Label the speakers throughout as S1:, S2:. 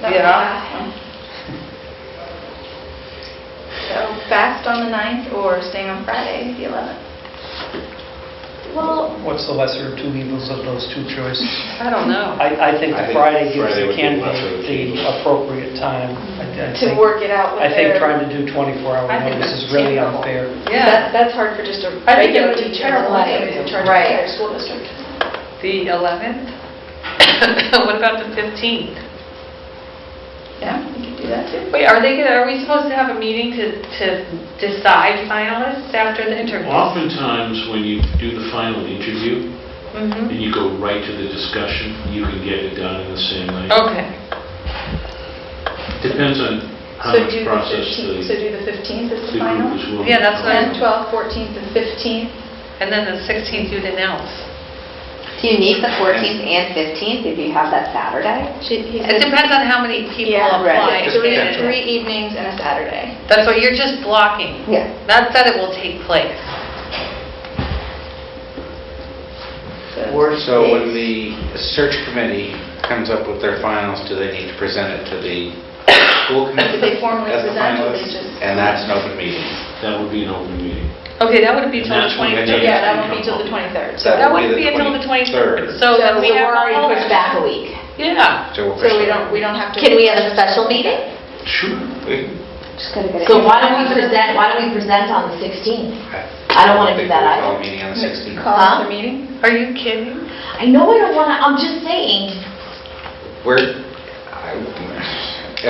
S1: That was
S2: Yeah.
S1: last. So fast on the 9th or staying on Friday, the 11th?
S2: Well,
S3: What's the lesser of two evils of those two choices?
S2: I don't know.
S3: I, I think
S4: I
S3: the
S4: think
S3: Friday gives
S4: Friday
S3: the
S4: would be lesser of
S3: candidate
S4: two
S3: the
S4: evils.
S3: appropriate time. I-
S1: To
S3: I think-
S1: work it out with
S3: I think
S1: their...
S3: trying to do 24-hour
S2: I think
S3: notice
S2: that's
S3: is really
S2: terrible.
S3: unfair.
S2: Yeah,
S1: That- That's hard for just a
S2: I think it
S1: regular
S2: would be
S1: teacher in
S2: terrible
S1: life in
S2: anyway.
S1: charge of
S2: Right.
S1: their school district.
S2: the 11th? What about the 15th?
S1: Yeah, we could do that too.
S2: Wait, are they, gonna- are we supposed to have a meeting to, to decide finalists after the interviews?
S5: Oftentimes, when you do the final interview
S2: Mhm.
S5: and you go right to the discussion, you can get it done in the same night.
S2: Okay.
S5: Depends on how
S1: So
S5: much
S1: do the
S5: process
S1: 15th, so
S5: the the
S1: do the 15th as the
S5: group
S1: final?
S5: is willing.
S2: Yeah, that's
S5: to
S2: what I-
S1: 10th,
S5: go.
S1: 12th, 14th, and 15th.
S2: And then the 16th, you'd announce.
S6: Do you need the 14th and 15th if you have that Saturday?
S1: She- he
S2: It
S1: said-
S2: depends on how many people
S1: Yeah,
S2: apply.
S1: So we have
S5: Yeah.
S1: three evenings and a Saturday.
S2: That's why you're just blocking.
S6: Yeah.
S2: Not that it will take place.
S1: Or
S4: So when the search committee comes up with their finals, do they need to present it to the school
S1: Do
S4: committee?
S1: they formally
S4: as the
S1: present or they
S4: finalists?
S1: just-
S4: And that's an open meeting.
S5: That would be an open meeting.
S2: Okay, that would be
S5: And
S2: till the
S5: that's when they
S2: 23rd.
S5: take-
S1: Yeah, that won't be till the 23rd.
S4: So
S2: That
S4: would
S2: wouldn't be until the 23rd. So
S6: So
S2: then we
S6: we're
S2: have
S6: already
S2: all...
S6: pushed back a week.
S2: Yeah.
S4: 23rd. So we'll
S1: So we
S4: push it.
S1: don't, we don't have to...
S6: Can we have a special meeting?
S5: Sure.
S4: We-
S6: Just gotta get it. So why don't we present, why don't we present on the 16th? I don't wanna do
S4: think
S6: that either.
S4: we'll call a meeting on the 16th.
S1: Call
S6: Huh?
S1: the meeting?
S2: Are you kidding?
S6: I know I don't wanna, I'm just saying,
S4: We're, I-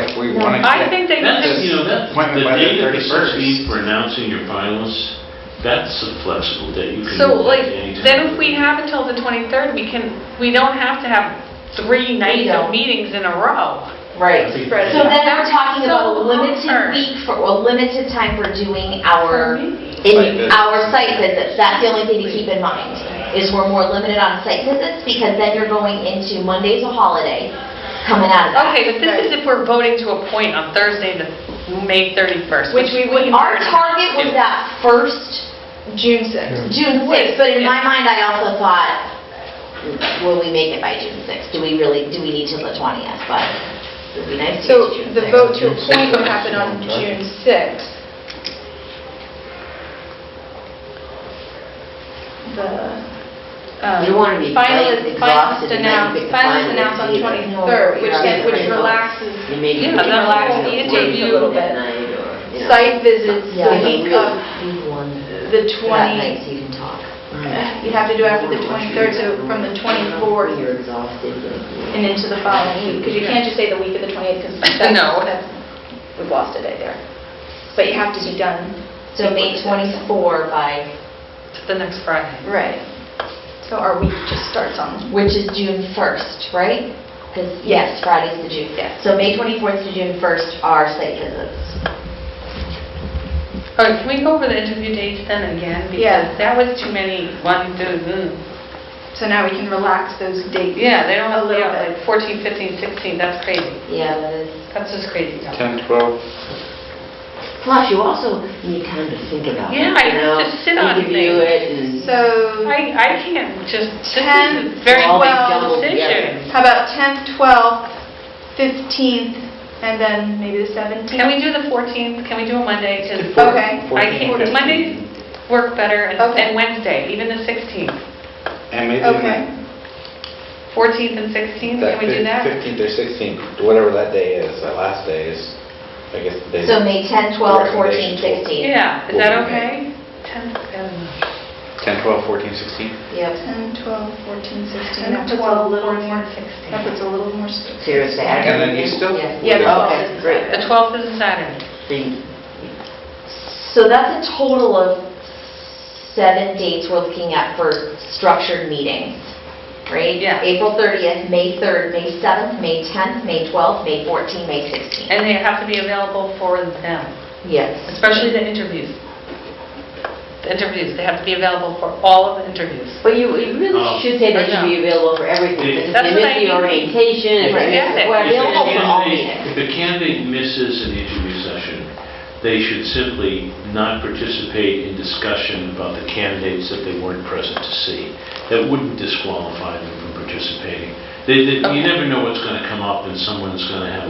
S4: if we
S6: No.
S4: want to.
S2: I think they
S5: That's,
S2: could...
S5: you know, that,
S4: Appointment
S5: the
S4: by the
S5: date of the
S4: 31st.
S5: 16th for announcing your finalists, that's a flexible date. You can
S2: So
S5: move that
S2: like,
S5: to any time.
S2: then if we have until the 23rd, we can, we don't have to have three nights of
S6: don't.
S2: meetings in a row.
S5: I
S6: Right.
S5: think-
S1: Spread it
S6: So then we're talking
S2: So
S6: about a
S2: long-term.
S6: limited week for, a limited time for doing our,
S4: Site
S6: in
S4: visits.
S6: our site visits. That's the only thing to keep in mind, is we're more limited on site visits because then you're going into Monday's a holiday, coming out of that.
S2: Okay, but this is if we're voting to appoint on Thursday, the May 31st, which we wouldn't...
S6: Our target was that first
S1: June 6th.
S6: June 6th, but in my mind, I also thought, will we make it by June 6th? Do we really, do we need till the 20th? But it would be nice
S1: So
S6: to get to June
S1: the
S6: 6th.
S1: vote to appoint would happen on June 6th. The um,
S6: You wanna be
S1: finalist-
S6: late, exhausted,
S1: finalist
S6: and then
S1: announce-
S6: you pick the
S1: Finalist
S6: finalists
S1: announced on
S6: either. No,
S1: 23rd, which
S6: you're
S1: then,
S6: not
S1: which
S6: gonna
S1: relaxes
S6: You may be
S2: Yeah,
S6: looking
S2: that's
S6: at
S2: the
S6: it
S2: interview.
S6: late at night or, you know.
S1: site visits
S6: Yeah,
S1: the
S6: but
S1: week
S6: really,
S1: of
S6: you won.
S1: the
S6: That
S1: 20th.
S6: night, so you can talk.
S1: You'd have to do after the 23rd, so from the 24th
S6: You're exhausted. but-
S1: and into the following week, because you can't just say the week of the 28th, because that's,
S2: No.
S1: that's- we've lost a day there. But you have to be done.
S6: So May 24 by,
S2: The next Friday.
S1: Right. So our week just starts on,
S6: which is June 1st, right? Because, yes, Friday's the June 5th. So May 24th to June 1st are site visits.
S2: All right, can we go over the interview dates then again?
S1: Yeah.
S2: Because that was too many, one, two, mm.
S1: so now we can relax those dates.
S2: yeah, they don't
S1: A
S2: have,
S1: little
S2: yeah, like 14, 15, 16, that's crazy.
S6: Yeah, that is.
S2: That's just crazy. Tom.
S4: 10, 12,
S7: Plus, you also need time to think about it.
S2: Yeah, I
S7: you know,
S2: have to sit on
S7: Interview
S2: things.
S7: it and...
S1: So
S2: I, I can't just, this is a
S1: 10,
S2: very
S7: all be
S2: well
S7: jumbled
S2: decision.
S7: together.
S1: how about 10th, 12th, 15th, and then maybe the 17th?
S2: Can we do the 14th? Can we do a Monday? Because
S1: Okay.
S2: I can't,
S4: 14th.
S2: Mondays work better and
S1: Okay.
S2: and Wednesday, even the 16th.
S4: and maybe
S1: Okay.
S4: even
S2: 14th and 16th,
S4: that
S2: can we do that?
S4: 15th or 16th, whatever that day is, that last day is, I guess the day.
S6: So May 10, 12, 14,
S4: Recommendations.
S6: 16.
S2: Yeah, is
S4: We'll
S2: that
S4: do
S2: okay? 10th, um,
S4: 10, 12, 14, 16?
S6: Yep.
S1: 10, 12, 14, 16.
S2: 10th,
S1: That puts a
S2: 12th,
S1: little
S2: 14th,
S1: more,
S2: 16th.
S1: that puts a little more space.
S7: So you're a Saturday?
S4: And then you still-
S7: Yeah.
S1: Yeah, the
S4: Okay,
S1: 12th is a
S7: great.
S2: The
S1: Saturday.
S2: 12th is a Saturday.
S7: So you-
S6: So that's a total of seven dates we're looking at for structured meetings, right?
S2: Yeah.
S6: April 30th, May 3rd, May 7th, May 10th, May 12th, May 14th, May 16th.
S2: And they have to be available for them,
S6: Yes.
S2: especially the interviews. The interviews, they have to be available for all of the interviews.
S7: But you you really
S5: Um,
S7: should say
S2: I
S7: that should be available for
S5: Yeah.
S7: everything. Because
S2: That's
S7: if
S2: what I
S7: they miss the
S2: mean.
S7: orientation, if
S2: Right.
S7: they miss
S2: Yeah.
S7: the- we're
S5: If the
S7: available for all
S5: candidate-
S7: meetings.
S5: If a candidate misses an interview session, they should simply not participate in discussion about the candidates that they weren't present to see. That wouldn't disqualify them from participating. They, they- you
S2: Okay.
S5: never know what's going to come up and someone's going to have